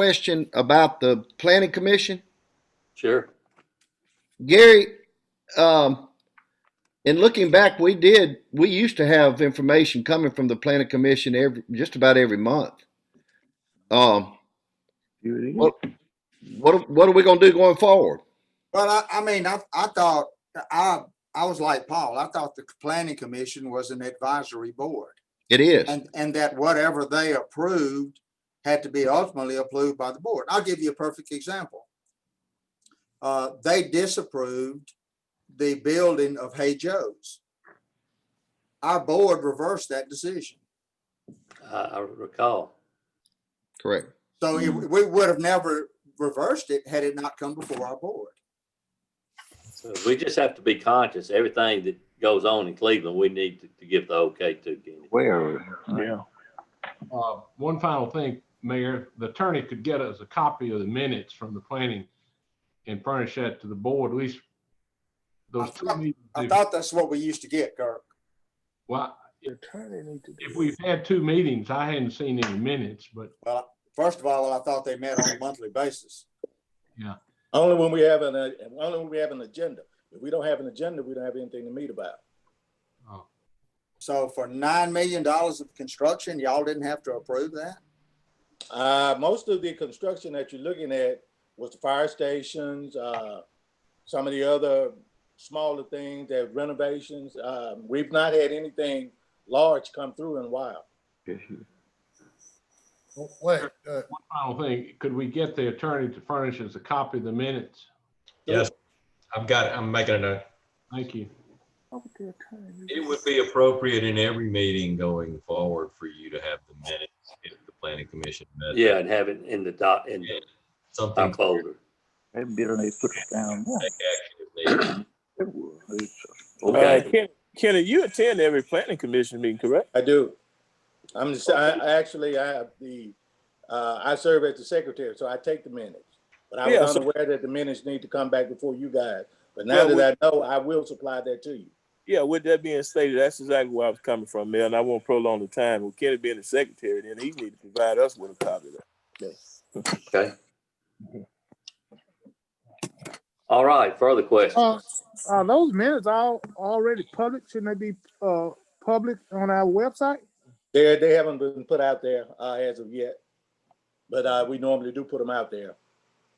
question about the planning commission? Sure. Gary, um, in looking back, we did, we used to have information coming from the planning commission every, just about every month. Um, what, what, what are we gonna do going forward? Well, I, I mean, I, I thought, I, I was like Paul, I thought the planning commission was an advisory board. It is. And, and that whatever they approved had to be ultimately approved by the board. I'll give you a perfect example. Uh, they disapproved the building of Hey Joe's. Our board reversed that decision. I, I recall. Correct. So it- we would have never reversed it had it not come before our board. So we just have to be conscious. Everything that goes on in Cleveland, we need to, to give the okay to. Kenny. Where? Yeah. Uh, One final thing, Mayor, the attorney could get us a copy of the minutes from the planning and furnish that to the board, at least those two thought- meetings. I if- thought that's what we used to get, Kirk. Well, Attorney need to. if we've had two meetings, I hadn't seen any minutes, but Well, first of all, I thought they met on a monthly basis. Only when we have an, uh, only when we have an agenda. If we don't have an agenda, we don't have anything to meet about. uh, So for nine million dollars of construction, y'all didn't have to approve that? Uh, most of the construction that you're looking at was the fire stations, uh, some of the other smaller things, that renovations. Um, we've not had anything large come through in a while. Wait, uh, one final thing, could we get the attorney to furnish us a copy of the minutes? Yes, I've got, it. I'm making a note. Thank you. It would be appropriate in every meeting going forward for you to have the minutes if the planning commission met. Yeah, and have it in the dot, in the Something top to folder. take action if needed. Okay. Uh, Kenny, you attend every planning commission meeting, correct? I do. I'm just, I, I actually, I, the, uh, I serve as the secretary, so I take the minutes. But I Yeah, was so- unaware that the minutes need to come back before you guys. But Yeah, now we- that I know, I will supply that to you. Yeah, with that being stated, that's exactly where I was coming from, man. I won't prolong the time. With Kenny being the secretary, then he need to provide us with a copy of that. Okay. All right, further questions? uh, are those minutes all already public? Shouldn't they be, uh, public on our website? They, they haven't been put out there, uh, as of yet. But, uh, we normally do put them out there.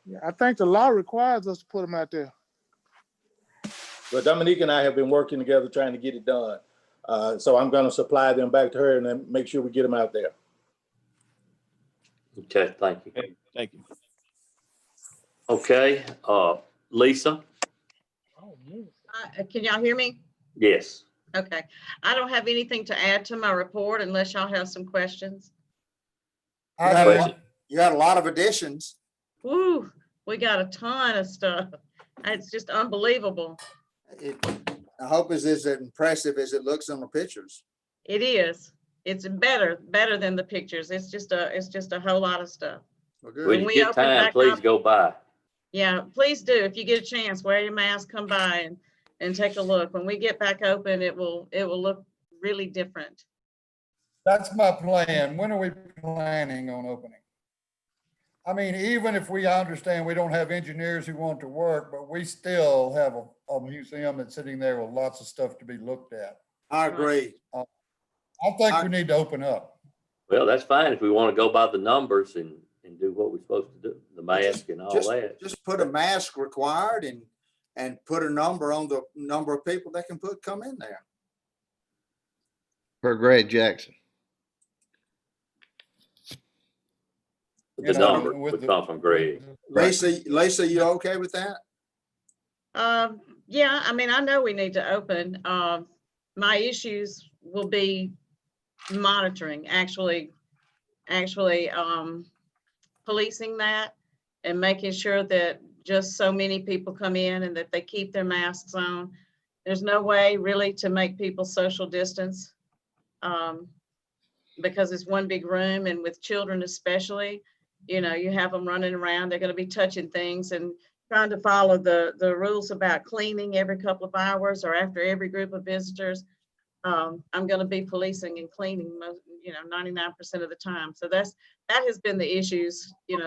Yeah, I think the law requires us to put them out there. But Dominique and I have been working together trying to get it done. Uh, so I'm gonna supply them back to her and then make sure we get them out there. Okay, thank you. Thank you. Okay, uh, Lisa? Uh, Can y'all hear me? Yes. Okay. I don't have anything to add to my report unless y'all have some questions. You had a Question. lot- you had a lot of additions. Woo, we got a ton of stuff. It's just unbelievable. It- I hope it's as impressive as it looks on the pictures. It is. It's better, better than the pictures. It's just a, it's just a whole lot of stuff. Well, When good. you we get open time, back please up- go by. Yeah, please do. If you get a chance, wear your mask, come by and, and take a look. When we get back open, it will, it will look really different. That's my plan. When are we planning on opening? I mean, even if we understand we don't have engineers who want to work, but we still have a, a museum that's sitting there with lots of stuff to be looked at. I agree. I think we need to open up. Well, that's fine if we want to go by the numbers and, and do what we're supposed to do, the mask and all Just- that. Just put a mask required and, and put a number on the number of people that can put, come in there. Per Greg Jackson. You The know, number with would the- come from Greg. Right. Lisa, Lisa, you okay with that? Um, yeah, I mean, I know we need to open. Um, my issues will be monitoring, actually, actually, um, policing that and making sure that just so many people come in and that they keep their masks on. There's no way really to make people social distance. Um, because it's one big room and with children especially, you know, you have them running around, they're gonna be touching things and trying to follow the, the rules about cleaning every couple of hours or after every group of visitors. Um, I'm gonna be policing and cleaning most, you know, ninety-nine percent of the time. So that's, that has been the issues, you know,